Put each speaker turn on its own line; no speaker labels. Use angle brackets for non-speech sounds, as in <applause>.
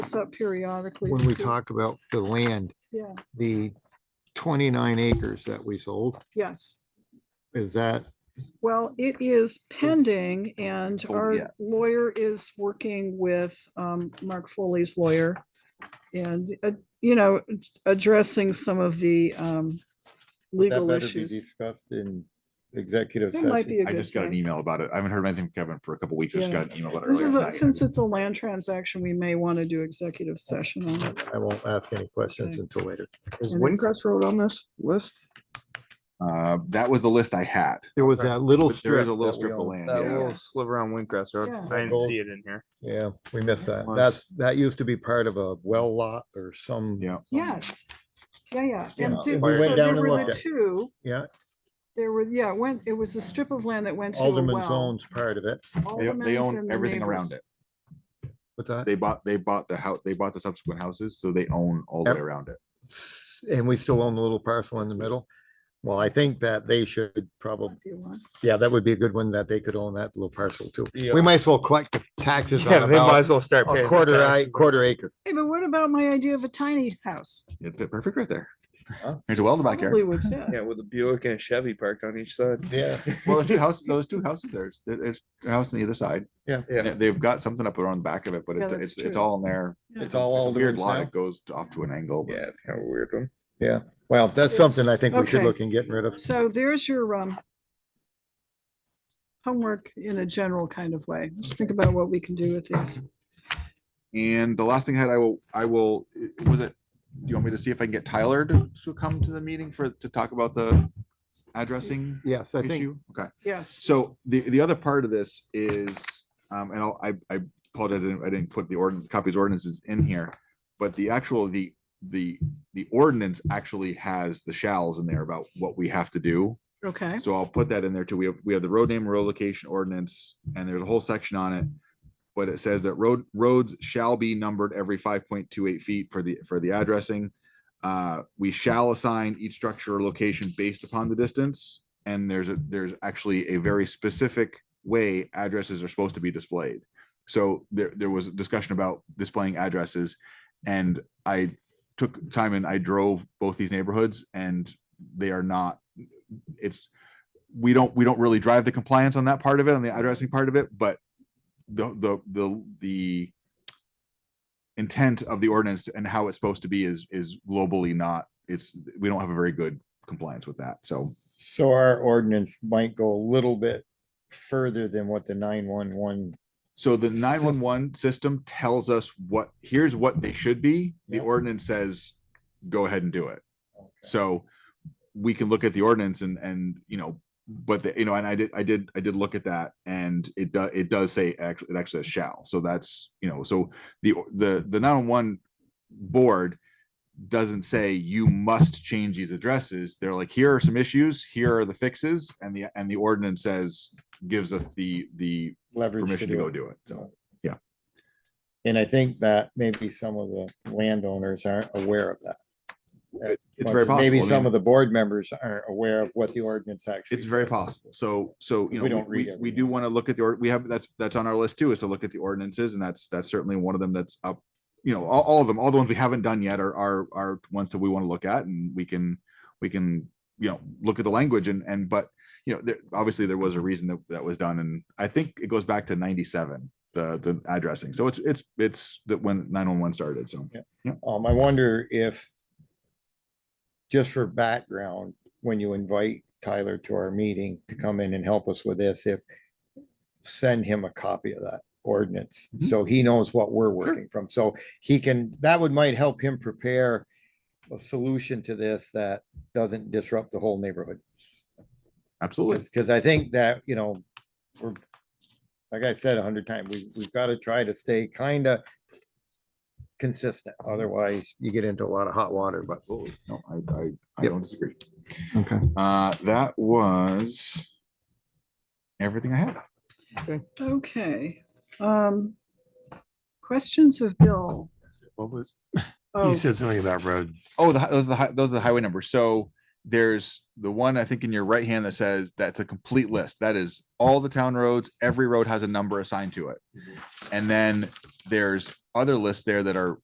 this up periodically. to
when we
see-
talk about the land,
Yeah,
the twenty-nine acres that we sold,
yes.
is that,
Well, it is pending and
Oh,
our
yeah.
lawyer is working with um, Mark Foley's lawyer. And, uh, you know, addressing some of the um,
That
legal
better be
issues.
discussed in executive
That might be
session.
a
I
good
just got an
thing.
email about it. I haven't heard anything from Kevin for a couple weeks. I just
Yeah.
got an email about it
This is,
earlier
a-
tonight.
since it's a land transaction, we may want to do executive session on it.
I won't ask any questions until later.
Is
And it's-
Windcrest Road on this list?
Uh, that was the list I had.
There was that little
But there
strip.
is a little
that we
strip of
own.
land,
That
yeah.
little sliver on Windcrest Road.
Yeah.
I didn't see it in here.
Yeah, we missed that.
Was-
That's, that used to be part of a well lot or some.
Yeah.
Yes, yeah, yeah.
Yeah,
And
we
did-
went
so
down
there
and
were
looked
the
at it.
two,
Yeah,
there were, yeah, it went, it was a strip of land that went to a
Alderman's
well.
owns part of it.
They, they
Alderman's and
own
the
everything
neighbors.
around it.
What's that?
They bought, they bought the house, they bought the subsequent houses, so they own all the way
Yep.
around it.
And we still own the little parcel in the middle. Well, I think that they should probably,
If you want.
yeah, that would be a good one that they could own that little parcel too.
Yeah.
We might as well collect the taxes
Yeah,
on
they might
about
as well start paying.
a
some
quarter,
taxes
ac-
on-
quarter acre.
Hey, but what about my idea of a tiny house?
It fit perfect right there.
Huh?
There's a well in the
Probably
backyard.
would
<laughs>
fit.
Yeah, with a Buick and a Chevy parked on each side.
Yeah.
Well, the two houses, those two houses, there's, there- there's a house on the other side.
Yeah.
Yeah.
They- They've got something up around the back of it, but
Yeah,
it's,
that's
it's, it's
true.
all in there.
Yeah.
It's all
It's a Weird
Alderman's
lot.
now.
It goes off to an angle. but-
Yeah, it's kind of a weird one.
Well, that's
Yes.
something I think we should
Okay.
look and getting rid of.
So there's your, um, homework in a general kind of way. Just think about what we can do with these.
And the last thing I had, I will, I will, i- was it, do you want me to see if I can get Tyler to, to come to the meeting for, to talk about the addressing
Yes, I think
issue? Okay,
Yes.
so the, the other part of this is, um, and I'll- I, I apologize, I didn't, I didn't put the ordinance, copies ordinances in here. But the actual, the, the, the ordinance actually has the shalls in there about what we have to do.
Okay.
So I'll put that in there too. We have, we have the road name, road location ordinance, and there's a whole section on it. But it says that road, roads shall be numbered every five point two eight feet for the, for the addressing. Uh, we shall assign each structure or location based upon the distance. And there's a, there's actually a very specific way addresses are supposed to be displayed. So there, there was a discussion about displaying addresses and I took time and I drove both these neighborhoods and they are not, it's, we don't, we don't really drive the compliance on that part of it, on the addressing part of it, but the, the, the, the intent of the ordinance and how it's supposed to be is, is globally not, it's, we don't have a very good compliance with that. So
So our ordinance might go a little bit further than what the nine-one-one.
So the
Sys-
nine one one system tells us what, here's what they should be. The
Yep.
ordinance says, go ahead and do it. So we can look at the ordinance and, and, you know, but the, you know, and I did, I did, I did look at that and it does, it does say, actually, it actually says shall. So that's, you know, so the, or- the, the nine one one board doesn't say you must change these addresses. They're like, here are some issues, here are the fixes. And the, and the ordinance says, gives us the, the
Leverage.
permission to go do it. So.
So,
yeah.
And I think that maybe some of the landowners aren't aware of that. As
It's
much
very
as Maybe
possible, I
some
mean-
of the board members aren't aware of what the ordinance actually.
It's very
says.
possible. So, so, you
We
know,
don't
we-
read
we, we do
everything.
want to look at the, ord- we have, that's, that's on our list too, is to look at the ordinances and that's, that's certainly one of them that's up. You know, all, all of them, all the ones we haven't done yet are, are, are ones that we want to look at and we can, we can, you know, look at the language and, and, but, you know, there, obviously there was a reason that that was done and I think it goes back to ninety-seven, the, the addressing. So it's, it's, it's that when nine-one-one started, so.
Um, I wonder if, just for background, when you invite Tyler to our meeting to come in and help us with this, if send him a copy of that ordinance,
Mhm.
so he knows what we're working from, so he can, that would might help him prepare a solution to this that doesn't disrupt the whole neighborhood.
Absolutely.
Because I think that, you know, we're, like I said a hundred times, we, we've got to try to stay kind of consistent, otherwise you get into a lot of hot water, but.
Absolutely. No, I, I, I
Yep.
don't disagree.
Okay.
Uh, that was everything I had.
Okay. Um, questions of Bill?
What was, <laughs>
Oh,
you said something about road.
Oh, the, hi- those are the, hi- those are the highway numbers. So There's the one I think in your right hand that says that's a complete list. That is all the town roads. Every road has a number assigned to it. And then there's other lists there that are